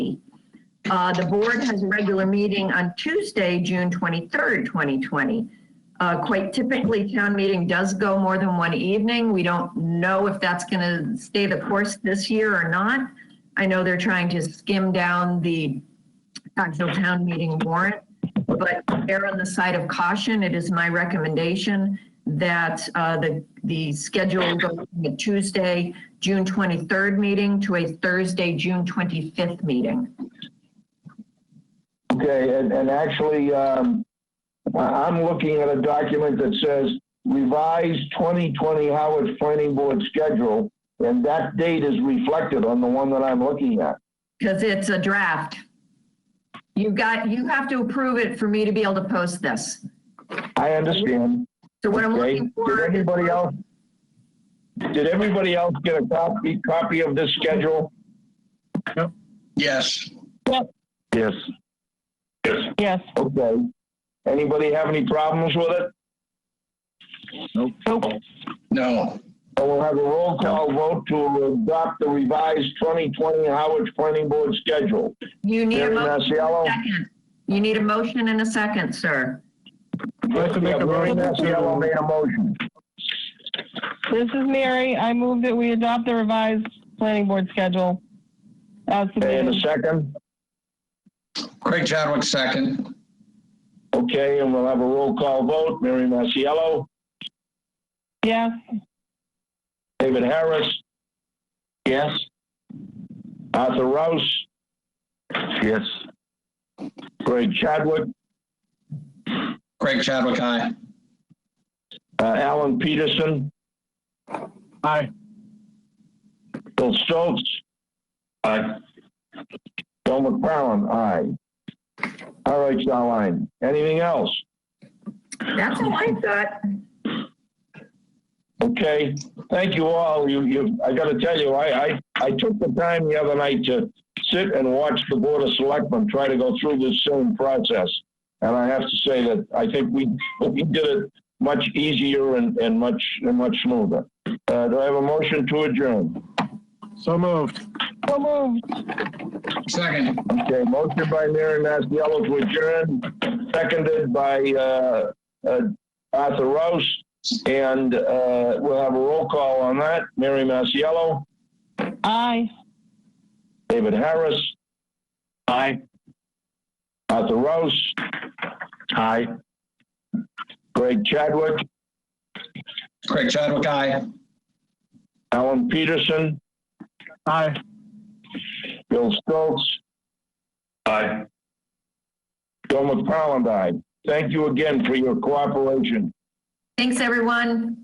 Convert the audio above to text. Uh, The board has a regular meeting on Tuesday, June 23rd, 2020. Uh, Quite typically, town meeting does go more than one evening. We don't know if that's going to stay the course this year or not. I know they're trying to skim down the actual town meeting warrant, but err on the side of caution. It is my recommendation that uh, the, the schedule go from a Tuesday, June 23rd meeting to a Thursday, June 25th meeting. Okay, and, and actually, um, I- I'm looking at a document that says revised 2020 Howard Planning Board schedule, and that date is reflected on the one that I'm looking at. Because it's a draft. You got, you have to approve it for me to be able to post this. I understand. So what I'm Okay, looking did for, is- anybody else? Did everybody else get a copy, copy of this schedule? Yes. Yes. Yes. Okay. Anybody have any problems with it? No. And we'll have a roll call vote to adopt the revised 2020 Howard Planning Board schedule. you need a Mary motion, Massiello? second. You need a motion and a second, sir. Yes, we have Mary Massiello made a motion. This is Mary. I move that we adopt the revised planning board schedule. As Okay, and a submitted. second. Craig Chadwick, second. Okay, and we'll have a roll call vote. Mary Massiello, Yes, David Harris. Yes. Arthur Rouse. Yes. Greg Chadwick, Craig Chadwick, aye. uh, Alan Peterson. Aye. Bill Stokes. Aye. Bill McFarland, aye. All right, Starline. Anything else? That's all I got. Okay, thank you all. You, you, I gotta tell you, I, I, I took the time the other night to sit and watch the Board of Selectmen try to go through this same process. And I have to say that I think we, we did it much easier and, and much, and much smoother. Uh, do I have a motion to adjourn? So moved. so moved. Second. Okay, motion by Mary Mastiello to adjourn, seconded by, uh, uh, Arthur Rouse. And, uh, we'll have a roll call on that. Mary Mastiello? Aye. David Harris. Aye. Arthur Rouse. Aye. Greg Chadwick, Craig Chadwick, aye. Alan Peterson, Aye. Bill Stokes. Aye. Bill McFarland, aye. Thank you again for your cooperation. Thanks, everyone.